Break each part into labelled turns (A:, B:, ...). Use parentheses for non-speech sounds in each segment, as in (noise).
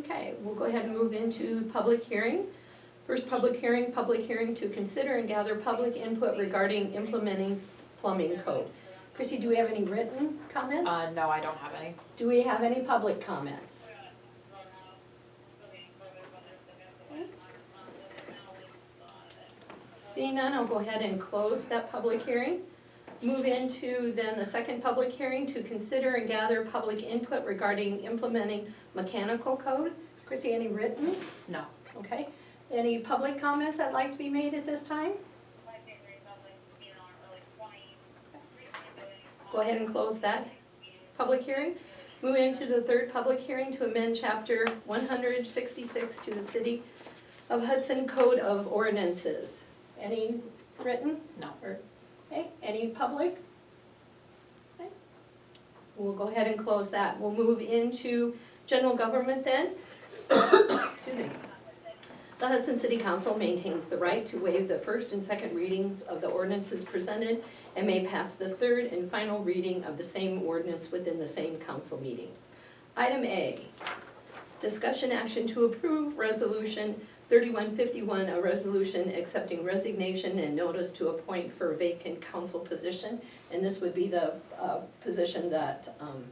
A: Okay, we'll go ahead and move into public hearing. First public hearing, public hearing to consider and gather public input regarding implementing plumbing code. Chrissy, do we have any written comments?
B: Uh, no, I don't have any.
A: Do we have any public comments? Seeing none, I'll go ahead and close that public hearing. Move into then the second public hearing to consider and gather public input regarding implementing mechanical code. Chrissy, any written?
B: No.
A: Okay. Any public comments that'd like to be made at this time? Go ahead and close that public hearing. Move into the third public hearing to amend chapter one hundred sixty-six to the City of Hudson Code of Ordinances. Any written?
B: No.
A: Or- Okay, any public? Okay. We'll go ahead and close that. We'll move into general government then. (coughs) Excuse me. The Hudson City Council maintains the right to waive the first and second readings of the ordinances presented and may pass the third and final reading of the same ordinance within the same council meeting. Item A, discussion action to approve resolution thirty-one fifty-one, a resolution accepting resignation and notice to appoint for vacant council position. And this would be the uh, position that um,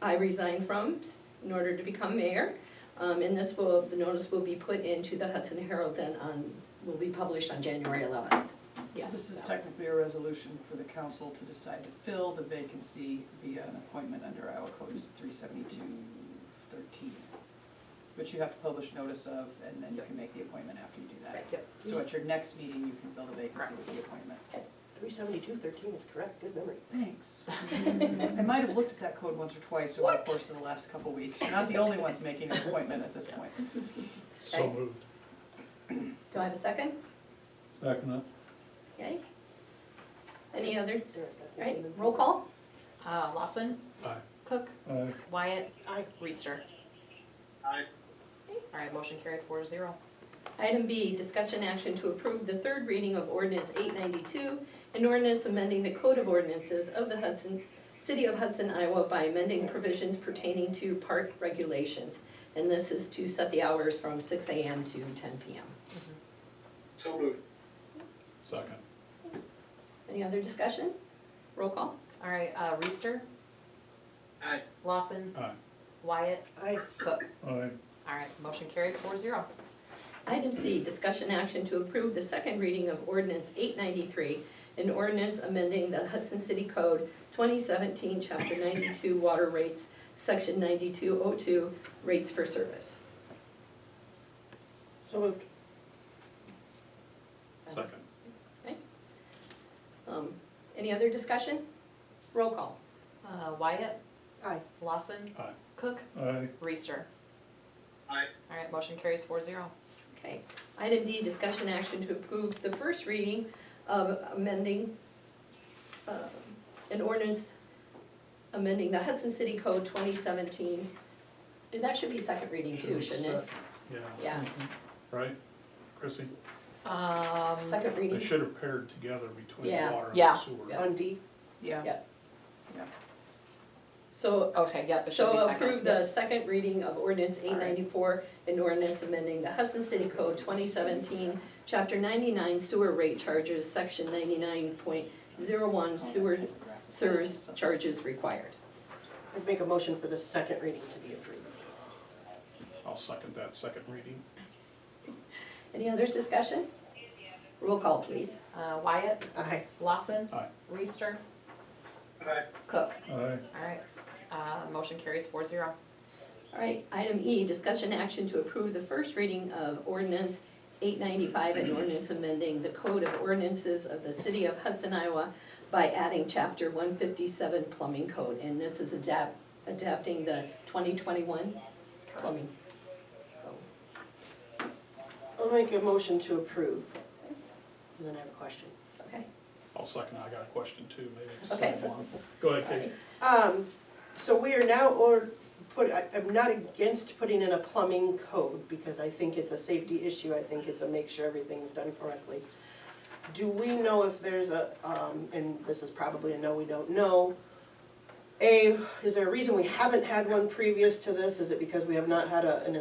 A: I resigned from in order to become mayor. Um, and this will, the notice will be put into the Hudson Herald then on, will be published on January eleventh. Yes.
C: This is technically a resolution for the council to decide to fill the vacancy via an appointment under Iowa Code three seventy-two thirteen. Which you have to publish notice of, and then you can make the appointment after you do that.
B: Yep.
C: So at your next meeting, you can fill the vacancy with the appointment.
D: Three seventy-two thirteen is correct, good memory.
C: Thanks. I might have looked at that code once or twice over the course of the last couple weeks. You're not the only ones making an appointment at this point.
E: So moved.
A: Do I have a second?
E: Second it.
A: Okay. Any other, right, roll call?
B: Uh, Lawson?
E: Aye.
B: Cook?
E: Aye.
B: Wyatt?
D: Aye.
B: Reister? All right, motion carried four zero.
A: Item B, discussion action to approve the third reading of ordinance eight ninety-two, an ordinance amending the code of ordinances of the Hudson, city of Hudson, Iowa by amending provisions pertaining to park regulations. And this is to set the hours from six AM to ten PM.
F: So moved.
E: Second.
A: Any other discussion? Roll call?
B: All right, uh, Reister?
F: Aye.
B: Lawson?
E: Aye.
B: Wyatt?
D: Aye.
B: Cook?
E: Aye.
B: All right, motion carried four zero.
A: Item C, discussion action to approve the second reading of ordinance eight ninety-three, an ordinance amending the Hudson City Code twenty seventeen, chapter ninety-two, water rates, section ninety-two oh two, rates for service.
D: So moved.
E: Second.
A: Um, Any other discussion? Roll call.
B: Uh, Wyatt?
D: Aye.
B: Lawson?
E: Aye.
B: Cook?
E: Aye.
B: Reister?
F: Aye.
B: All right, motion carries four zero.
A: Okay. Item D, discussion action to approve the first reading of amending um, an ordinance amending the Hudson City Code twenty seventeen. And that should be second reading too, shouldn't it?
E: Yeah,
A: Yeah,
E: right? Chrissy,
B: Um,
A: second
E: they
A: reading.
E: should have paired together between
A: Yeah.
E: water
B: Yeah.
E: and sewer.
D: On D,
C: Yeah.
A: So,
B: Um, okay, yep, it should be
A: so
B: second.
A: approve the second reading of ordinance
B: Sorry.
A: eight ninety-four, an ordinance amending the Hudson City Code twenty seventeen, chapter ninety-nine sewer rate charges, section ninety-nine point zero one sewer service charges required.
D: I'd make a motion for the second reading to be approved.
E: I'll second that second reading.
A: Any other discussion? Roll call, please.
B: Uh, Wyatt?
D: Aye.
B: Lawson?
E: Aye.
B: Reister?
F: Aye.
B: Cook?
E: Aye.
B: All right, uh, motion carries four zero.
A: All right, item E, discussion action to approve the first reading of ordinance eight ninety-five and ordinance amending the code of ordinances of the city of Hudson, Iowa by adding chapter one fifty-seven plumbing code, and this is adapt, adapting the twenty twenty-one plumbing. code.
D: I'll make a motion to approve. And then I have a question.
A: Okay,
E: I'll second, I got a question too, maybe it's the
A: Okay.
E: same one. Go ahead,
A: all
E: Kate.
A: right.
D: Um, so we are now, or, put, I, I'm not against putting in a plumbing code, because I think it's a safety issue, I think it's a make sure everything's done correctly. Do we know if there's a, um, and this is probably a no, we don't know, A, is there a reason we haven't had one previous to this, is it because we have not had a, an